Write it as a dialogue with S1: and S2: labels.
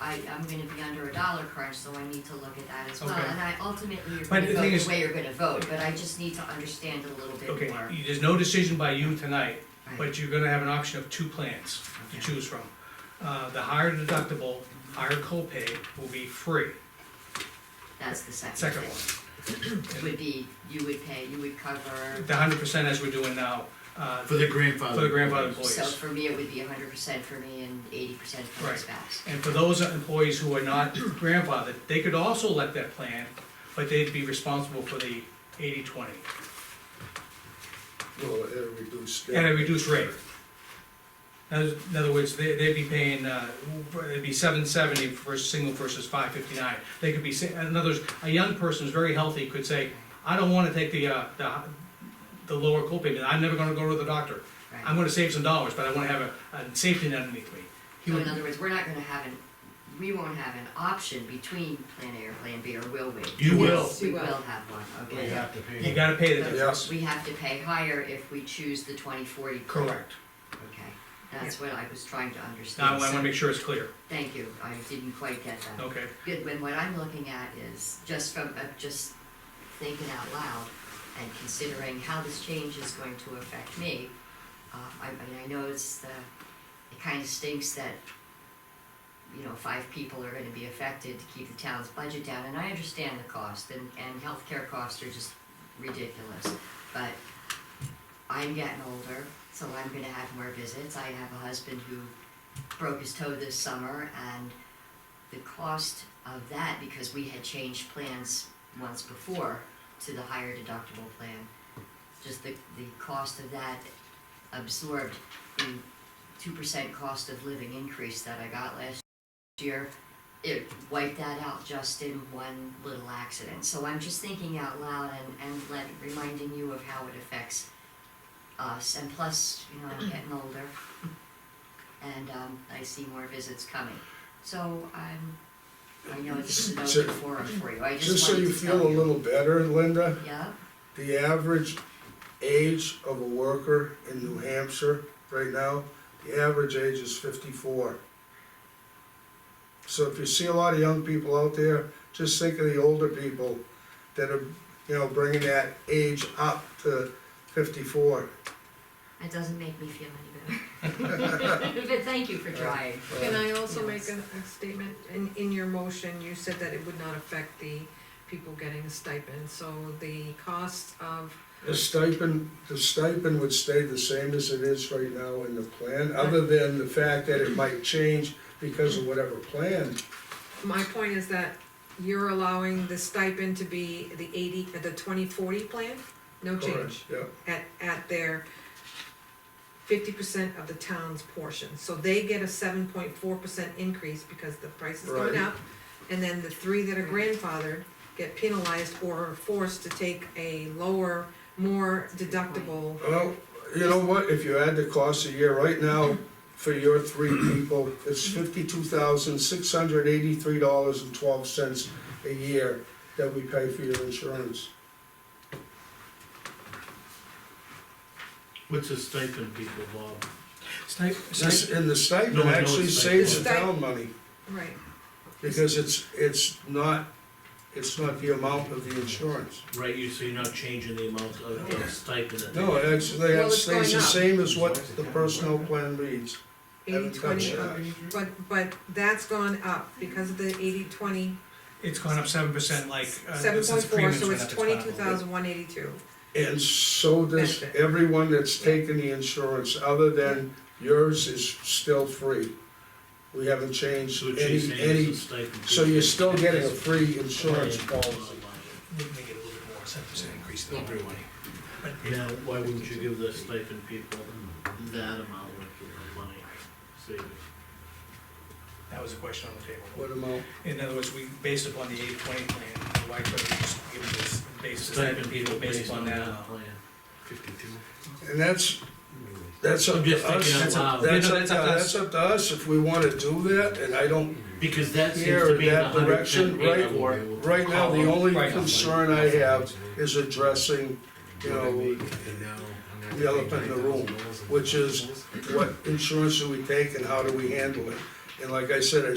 S1: I, I'm gonna be under a dollar crunch, so I need to look at that as well.
S2: Okay.
S1: And I ultimately, you're
S2: But
S1: gonna
S2: the
S1: vote
S2: thing is-
S1: the way you're gonna vote, but I just need to understand a little bit more.
S2: Okay, you- there's no decision by you tonight,
S1: Right.
S2: but you're gonna have an option of two plans to
S1: Okay.
S2: choose from. Uh, the higher deductible, higher copay will be free,
S1: That's the second
S2: second
S1: thing.
S2: one.
S1: Would be, you would pay, you would cover,
S2: The hundred percent as we're doing now, uh,
S3: For the grandfather.
S2: for the grandfather
S1: so
S2: employees.
S1: for me, it would be hundred percent for me and eighty percent for my
S2: Right.
S1: spouse.
S2: And for those employees who are not grandfathered, they could also let that plan, but they'd be responsible for the eighty-twenty
S4: Well, at a reduced.
S2: at a reduced rate. In other words, they, they'd be paying, uh, it'd be seven seventy for single versus five fifty-nine. They could be, sa- in other words, a young person who's very healthy could say, I don't wanna take the, uh, the, the lower copay, I'm never gonna go to the doctor.
S1: Right.
S2: I'm gonna save some dollars, but I wanna have a, a safety net underneath me. He
S1: So in
S2: would-
S1: other words, we're not gonna have an, we won't have an option between plan A or plan B, or will we?
S3: You will.
S1: We will
S5: will.
S1: have one,
S3: We
S1: okay?
S3: have to pay.
S2: You gotta pay the difference.
S4: Yes.
S1: We have to pay higher if we choose the twenty forty.
S2: Correct.
S1: Okay, that's what I was trying to
S2: Now, I
S1: understand.
S2: wanna
S1: So,
S2: make sure it's clear,
S1: Thank you, I didn't quite get that.
S2: okay?
S1: Good, when what I'm looking at is, just from, uh, just thinking out loud and considering how this change is going to affect me, uh, I, I mean, I know it's the, it kinda stinks that, you know, five people are gonna be affected to keep the town's budget down, and I understand the cost, and, and healthcare costs are just ridiculous, but I'm getting older, so I'm gonna have more visits, I have a husband who broke his toe this summer, and the cost of that, because we had changed plans once before to the higher deductible plan, just the, the cost of that absorbed the two percent cost of living increase that I got last year. It wiped that out just in one little accident. So I'm just thinking out loud and, and let, reminding you of how it affects us, and plus, you know, I'm getting older. And, um, I see more visits coming. So I'm, I know it's an
S4: So-
S1: open forum for you, I
S4: Just
S1: just
S4: so
S1: wanted
S4: you
S1: to tell
S4: feel a
S1: you.
S4: little better, Linda,
S1: Yeah,
S4: the average age of a worker in New Hampshire right now, the average age is fifty-four. So if you see a lot of young people out there, just think of the older people that are, you know, bringing that age up to fifty-four.
S1: it doesn't make me feel any better. But thank you for trying.
S5: Can I also make
S1: Yes.
S5: a a statement? In, in your motion, you said that it would not affect the people getting a stipend, so the cost of,
S4: The stipend, the stipend would stay the same as it is right now in the plan, other than the fact that it might change because of whatever plan.
S5: my point is that you're allowing the stipend to be the eighty, the twenty forty plan? No change,
S4: Yeah,
S5: at, at their fifty percent of the town's portion, so they get a seven point four percent increase because the price is going
S4: Right.
S5: up. And then the three that are grandfathered get penalized or are forced to take a lower, more deductible
S4: well, you know what, if you add the cost a year, right now, for your three people, it's fifty-two thousand, six hundred eighty-three dollars and twelve cents a year that we pay for your insurance.
S3: What's a stipend, people, Bob?
S2: Snipe-
S4: This- And the
S3: No,
S4: stipend
S3: I know
S4: actually
S3: it's
S4: saves the
S5: stipend.
S4: town money,
S5: Right,
S4: because it's, it's not, it's not the amount of the insurance.
S3: Right, you, so you're not changing the amount of the stipend that they.
S4: No, it actually,
S5: Well,
S4: it
S5: it's
S4: stays the
S5: going up.
S4: same as what the personnel plan reads.
S5: eighty
S4: Haven't touched
S5: twenty,
S4: that.
S5: but, but that's gone up because of the eighty twenty,
S2: It's gone up seven percent like. uh,
S5: seven
S2: since
S5: point
S2: the
S5: four,
S2: premiums
S5: so
S2: went
S5: it's
S2: up, gone up a
S5: twenty-two thousand one eighty-two.
S4: And so does
S5: Benefit.
S4: everyone that's taken the insurance, other than yours is still free. We haven't changed
S3: So what you're
S4: any,
S3: saying is
S4: any,
S3: the stipend.
S4: uh, so you're still getting a
S3: people-
S4: free insurance policy.
S2: little bit. Would make it a little bit more, seven percent increase.
S3: Don't worry. Now, why wouldn't you give the stipend people that amount of money savings?
S2: That was a question on the table.
S4: What amount?
S2: In other words, we, based upon the eight twenty plan, why couldn't we just give this basis?
S3: Stipend people based on that
S2: amount?
S3: plan.
S4: And that's, that's up
S3: I'm
S4: to
S3: just
S4: us.
S3: thinking out
S4: That's up
S3: loud.
S4: that's
S2: Yeah, no,
S4: up
S2: that's
S4: to
S2: up to us.
S4: that's up to us if we wanna do that, and I don't
S3: Because that seems
S4: care
S3: to
S4: in
S3: be the
S4: that
S3: hundred
S4: direction.
S3: percent
S4: Right,
S3: rate for.
S4: right now, the only
S2: Right.
S4: concern I have is addressing, you know, the elephant in the room, which is what insurance do we take and how do we handle it? And like I said, I